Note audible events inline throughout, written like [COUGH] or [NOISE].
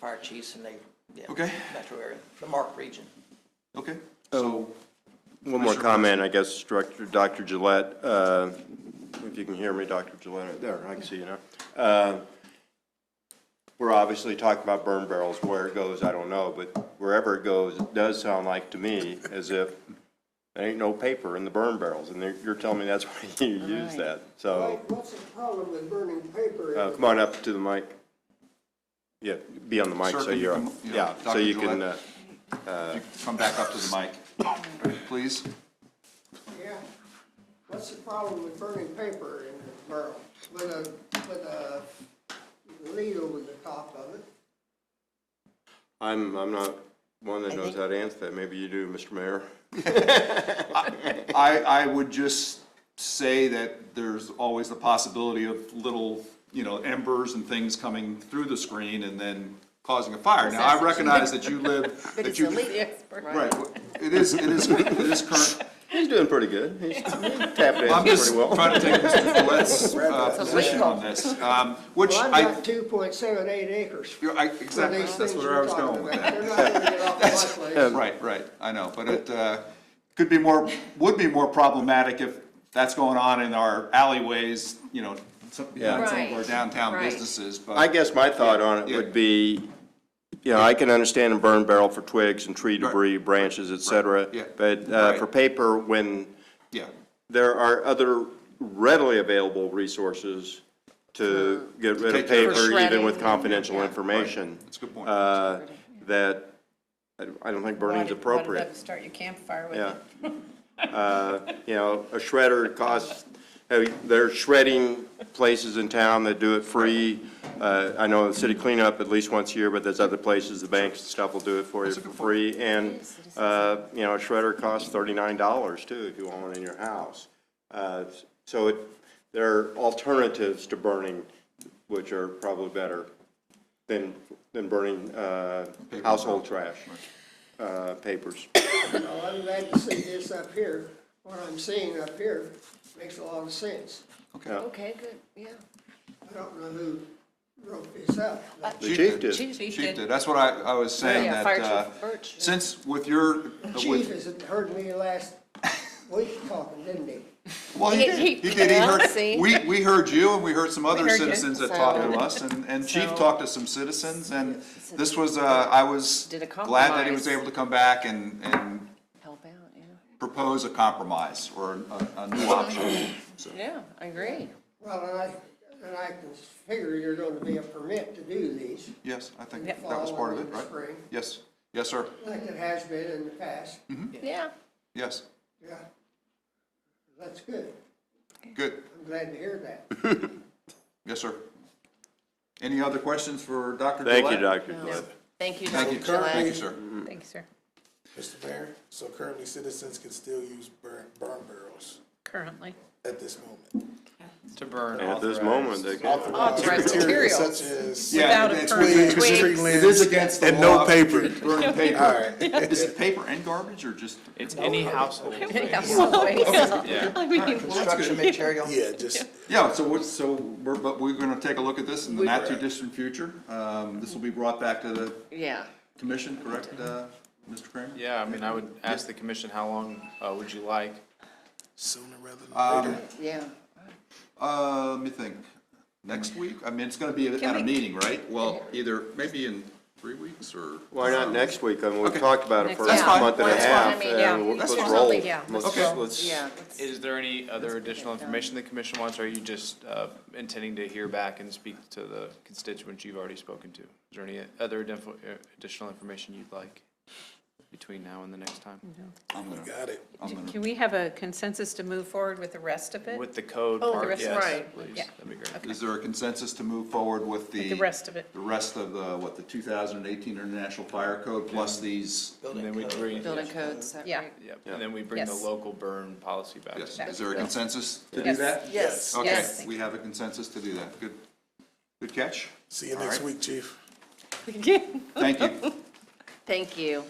fire chiefs and they, yeah. Okay. Metro area, the Mark region. Okay, so, One more comment, I guess, Director, Dr. Gillette, uh, if you can hear me, Dr. Gillette, there, I can see you now. Uh, We're obviously talking about burn barrels, where it goes, I don't know, but wherever it goes, it does sound like to me as if there ain't no paper in the burn barrels, and they're- you're telling me that's [LAUGHS] why you use that, so. Mike, what's the problem with burning paper? Oh. Uh, Come on up to the mic. Yeah, be on the mic Sir, so can you you're, come- up. yeah, yeah, so Dr. you can, Gillette? uh, if you could come back up to the mic, [LAUGHS] please. Yeah. What's the problem with burning paper in the barrel with a, with a lid over the top of it? I'm, I'm not one that knows how to answer that, maybe you do, Mr. Mayor. I, I would just say that there's always the possibility of little, you know, embers and things coming through the screen and then causing a fire. Now, I recognize that you live, that you. Right, it is, it is, it is [LAUGHS] current, He's doing pretty good. He's tapping I'm in just pretty well. trying to take Mr. [LAUGHS] Gillette's uh, position on this, um, which Well, I, I've got two point seven eight acres. you're- I- for exactly, these that's things where I we're was talking going with about. that. They're not gonna [LAUGHS] get off my place. Right, right, I know, but it, uh, could be more, would be more problematic if that's going on in our alleyways, you know, some, you know, some of our Right, downtown right. businesses, I but, guess my thought on it Yeah. would be, you know, I can understand a burn barrel for twigs and tree debris, branches, et cetera. Yeah. But uh, for Right. paper, when yeah, there are other readily available resources to get rid take of care of paper, even with shredding. confidential information, that's a good point. uh, that, I don't- I don't think burning's appropriate. Start your campfire with Yeah. it. Uh, You know, a shredder costs, hey, there are shredding places in town that do it free. Uh, I know the city cleanup at least once a year, but there's other places, the banks and stuff will do it for you That's a for good point. free. And, uh, you know, a shredder costs thirty-nine dollars too, if you want one in your house. Uh, So it, there are alternatives to burning, which are probably better than, than burning uh, household trash, uh, [COUGHS] papers. Well, I'm glad to see this up here. What I'm seeing up here makes a lot of sense. Okay, good, yeah. I don't know who wrote this up. but The chief did. Chief did, that's what I, I was saying, that, Yeah, Fire Chief uh, Birch. since with your, uh, with, Chief has heard me last week talking, didn't he? well, he He- did, he- he did, he yeah, heard, see? we, we heard you, and we heard some other heard you, citizens that talked to so- us, and, [LAUGHS] and Chief so- talked to some citizens, and this was, uh, I was Did a glad that he was compromise. able to come back and, and Help out, yeah. propose a compromise or a, a new option. Yeah, I agree. Well, and I, and I can figure you're going to be a permit to do these, Yes, I think Yeah. that was part of it, Follow the right? spring. Yes, yes, sir, like it has been in the past. Yeah. yes, Yeah. That's good. good, I'm glad to hear that. yes, sir. Any other questions for Dr. Gillette? Thank you, Dr. Gillette. Thank you, Thank Dr. you, thank you, Gillette. sir. Thank you, sir. Mr. Mayor, so currently citizens can still use burn, burn barrels Currently. at this moment. To burn. At this moment, they can. Authorized materials. Such as. Yeah, Without a it's- permit. it's- Twigs. [LAUGHS] It is against the law. And no paper. Burning All paper. right, Is it paper and garbage or just? It's any household. Construction material. [LAUGHS] yeah, just, Yeah, so what, so we're, but we're gonna take a look at this in the not too distant future. Um, this will be brought back to the [LAUGHS] Yeah. commission, correct, uh, Mr. Kramer? Yeah, I mean, I would ask the commission, how long uh, would you like? sooner rather than later. Yeah. Uh, let me think, next week? I mean, it's gonna be at a we- meeting, right? Well, either, maybe in three weeks or? Why not next week? I mean, we've Okay. talked about it for That's a fine. month and a That's fine. half, I mean, yeah. and we'll- let's Let's do roll. something, yeah. Let's- Okay. let's- Yeah. let's- Is there any other additional information the commission wants, or are you just uh, intending to hear back and speak to the constituents you've already spoken to? Is there any other additional- uh, additional information you'd like between now and the next time? I'm gonna, Got it. Can we have a consensus to move forward with the rest of it? With the code Oh, the part, rest- yes, right, please, yeah. that'd be great. is there a consensus to move forward with the? the rest of it. The rest of the, what, the two thousand and eighteen International Fire Code plus these, And then we bring, Building codes, is that Yeah. [LAUGHS] right? yeah, and then we bring the Yes. local burn policy back. yes, is there a consensus to do Yes. that? Yes, Okay, yes. we have a consensus to do that, good, good catch, See you next right. week, chief. thank you, Thank you. thank you,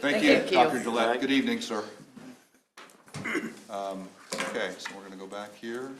Thank you. Dr. Gillette, good evening, sir. Um, Okay, so we're gonna go back here.